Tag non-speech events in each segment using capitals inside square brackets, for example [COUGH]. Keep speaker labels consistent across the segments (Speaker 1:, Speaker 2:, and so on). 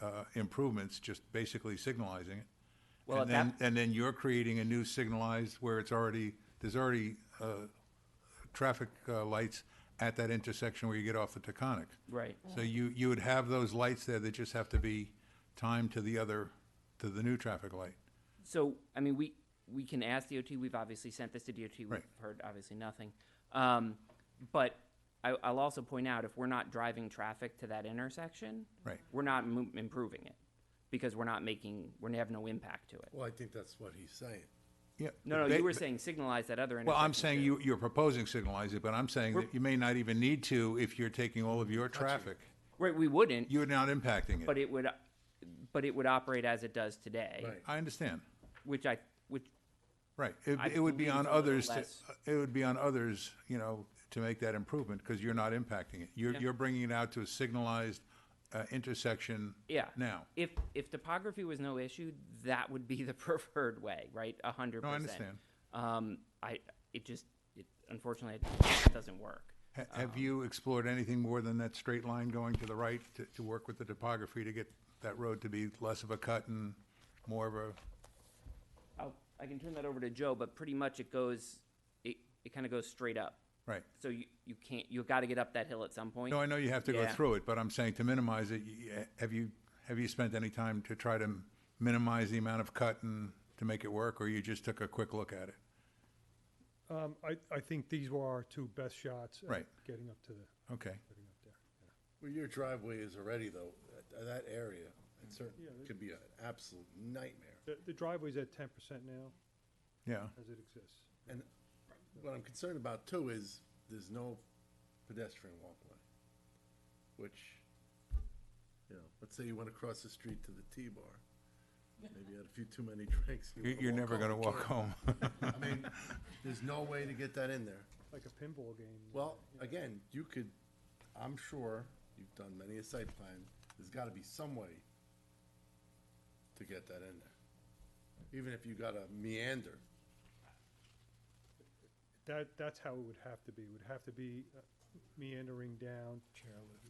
Speaker 1: uh, improvements, just basically signalizing it.
Speaker 2: Well,
Speaker 1: And
Speaker 2: at
Speaker 1: then,
Speaker 2: that-
Speaker 1: and then you're creating a new signalized where it's already, there's already uh, traffic uh, lights at that intersection where you get off the Taconic.
Speaker 2: Right.
Speaker 1: So you, you would have those lights there that just have to be timed to the other, to the new traffic light.
Speaker 2: So, I mean, we, we can ask DOT, we've obviously sent this to DOT, we've
Speaker 1: Right.
Speaker 2: heard obviously nothing. Um, but I, I'll also point out, if we're not driving traffic to that intersection.
Speaker 1: Right.
Speaker 2: We're not mo- improving it, because we're not making, we have no impact to it.
Speaker 3: Well, I think that's what he's saying.
Speaker 1: Yeah.
Speaker 2: No, no,
Speaker 1: Ba-
Speaker 2: you were
Speaker 1: ba-
Speaker 2: saying signalize that other intersection.
Speaker 1: Well, I'm saying
Speaker 2: too.
Speaker 1: you, you're proposing signalize it, but I'm saying that you may not even need to if you're taking all of your traffic.
Speaker 2: Right, we wouldn't,
Speaker 1: You're not impacting
Speaker 2: but
Speaker 1: it.
Speaker 2: it would, but it would operate as it does today.
Speaker 3: Right.
Speaker 1: I understand.
Speaker 2: Which I, which,
Speaker 1: Right. It,
Speaker 2: I
Speaker 1: it would be
Speaker 2: believe
Speaker 1: on
Speaker 2: a little
Speaker 1: others, to- uh,
Speaker 2: less.
Speaker 1: it would be on others, you know, to make that improvement because you're not impacting it. You're, you're bringing it out to a signalized uh, intersection
Speaker 2: yeah.
Speaker 1: now.
Speaker 2: If, if topography was no issue, that would be the [LAUGHS] preferred way, right? A hundred
Speaker 1: No, I
Speaker 2: percent.
Speaker 1: understand.
Speaker 2: Um, I, it just, it, unfortunately, it doesn't work.
Speaker 1: Ha-
Speaker 2: Um,
Speaker 1: Have you explored anything more than that straight line going to the right to, to work with the topography to get that road to be less of a cut and more of a,
Speaker 2: I'll, I can turn that over to Joe, but pretty much it goes, it, it kind of goes straight up.
Speaker 1: right?
Speaker 2: So you, you can't, you've got to get up that hill at some point.
Speaker 1: No, I know you have to go
Speaker 2: Yeah.
Speaker 1: through it, but I'm saying to minimize it, y- have you, have you spent any time to try to minimize the amount of cut and to make it work, or you just took a quick look at it?
Speaker 4: Um, I, I think these were our two best shots. at
Speaker 1: Right.
Speaker 4: Getting up to the,
Speaker 1: Okay,
Speaker 4: getting up there.
Speaker 3: Well, your driveway is already though, that- that area, it certainly could be an absolute nightmare.
Speaker 4: The, the driveway's at ten percent now,
Speaker 1: yeah,
Speaker 4: as it exists.
Speaker 3: And what I'm concerned about too is there's no pedestrian walkway, which, you know, let's say you want to cross the street to the T-bar. Maybe you had a few too many [LAUGHS] drinks. you
Speaker 1: You-
Speaker 3: wanna
Speaker 1: you're
Speaker 3: walk
Speaker 1: never
Speaker 3: home.
Speaker 1: gonna walk home.
Speaker 3: I mean, there's no way to get that in there.
Speaker 4: Like a pinball game.
Speaker 3: Well, again, you could, I'm sure, you've done many a site plan, there's gotta be some way to get that in there. Even if you gotta meander,
Speaker 4: That, that's how it would have to be. It would have to be uh, meandering down.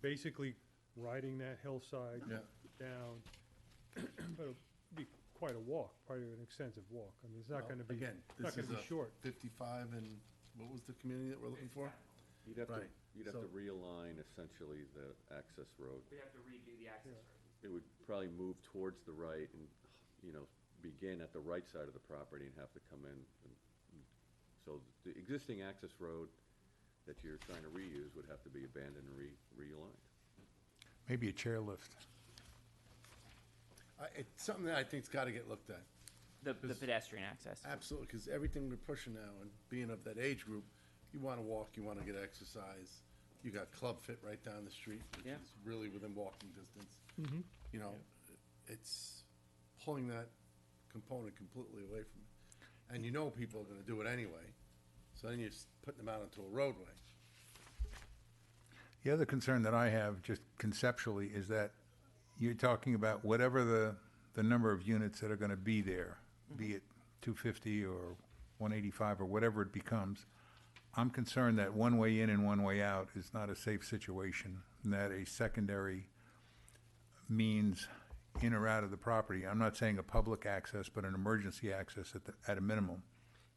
Speaker 4: Basically riding that hillside.
Speaker 3: Yeah.
Speaker 4: Down. But it'd be quite a walk, quite an extensive walk. I mean, it's not gonna be,
Speaker 3: again,
Speaker 4: it's not
Speaker 3: this
Speaker 4: gonna
Speaker 3: is a
Speaker 4: be short.
Speaker 3: fifty-five and, what was the community that we're looking for?
Speaker 5: You'd have to,
Speaker 3: Right.
Speaker 5: you'd have to
Speaker 3: So-
Speaker 5: realign essentially the access road.
Speaker 2: We have to redo the access.
Speaker 5: It would probably move towards the right and, you know, begin at the right side of the property and have to come in. and- So the existing access road that you're trying to reuse would have to be abandoned and re, realigned.
Speaker 1: [LAUGHS] maybe a chairlift.
Speaker 3: I, it's something that I think's gotta get looked at,
Speaker 2: The, the pedestrian access.
Speaker 3: absolutely, cause everything we're pushing now and being of that age group, you wanna walk, you wanna get exercise. You got Club Fit right down the street, which
Speaker 2: Yeah.
Speaker 3: is really within walking distance. You know, it's pulling that component completely away from it. And you know people are gonna do it anyway, so then you're s- putting them out onto a roadway.
Speaker 1: The other concern that I have, just conceptually, is that you're talking about whatever the, the number of units that are gonna be there, be it two fifty or one eighty-five or whatever it becomes. I'm concerned that one way in and one way out is not a safe situation, and that a secondary means in or out of the property, I'm not saying a public access, but an emergency access at the, at a minimum.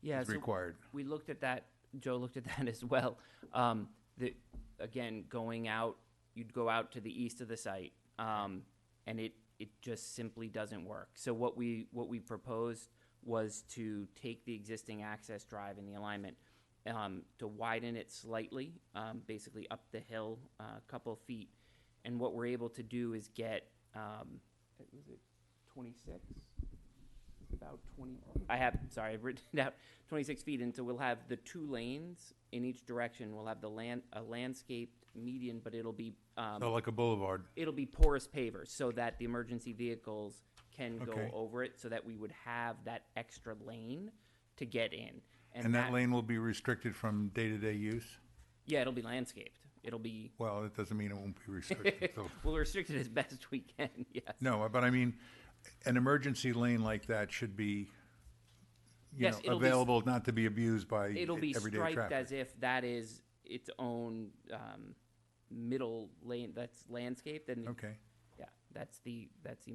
Speaker 2: Yeah,
Speaker 1: is
Speaker 2: so
Speaker 1: required.
Speaker 2: We looked at that, Joe looked at [LAUGHS] that as well. Um, the, again, going out, you'd go out to the east of the site, um, and it, it just simply doesn't work. So what we, what we proposed was to take the existing access drive and the alignment, um, to widen it slightly, um, basically up the hill, uh, a couple feet. And what we're able to do is get, um, was it twenty-six? about 20, I have, sorry, I've written [LAUGHS] it out, 26 feet, and so we'll have the two lanes in each direction, we'll have the land, a landscaped median, but it'll be, um,
Speaker 1: So like a boulevard,
Speaker 2: it'll be porous pavers, so that the emergency vehicles can go
Speaker 1: Okay.
Speaker 2: over it, so that we would have that extra lane to get in.
Speaker 1: and that lane will be restricted from day-to-day use?
Speaker 2: Yeah, it'll be landscaped, it'll be,
Speaker 1: Well, it doesn't mean it won't be restricted,
Speaker 2: [LAUGHS]
Speaker 1: so.
Speaker 2: we'll restrict it as best we can, [LAUGHS] yes.
Speaker 1: No, but I mean, an emergency lane like that should be, you
Speaker 2: Yes,
Speaker 1: know,
Speaker 2: it'll be s-
Speaker 1: available not to be abused by
Speaker 2: it'll be
Speaker 1: everyday
Speaker 2: striped
Speaker 1: traffic.
Speaker 2: as if that is its own um, middle lane that's landscaped and
Speaker 1: Okay.
Speaker 2: yeah That's the, that's the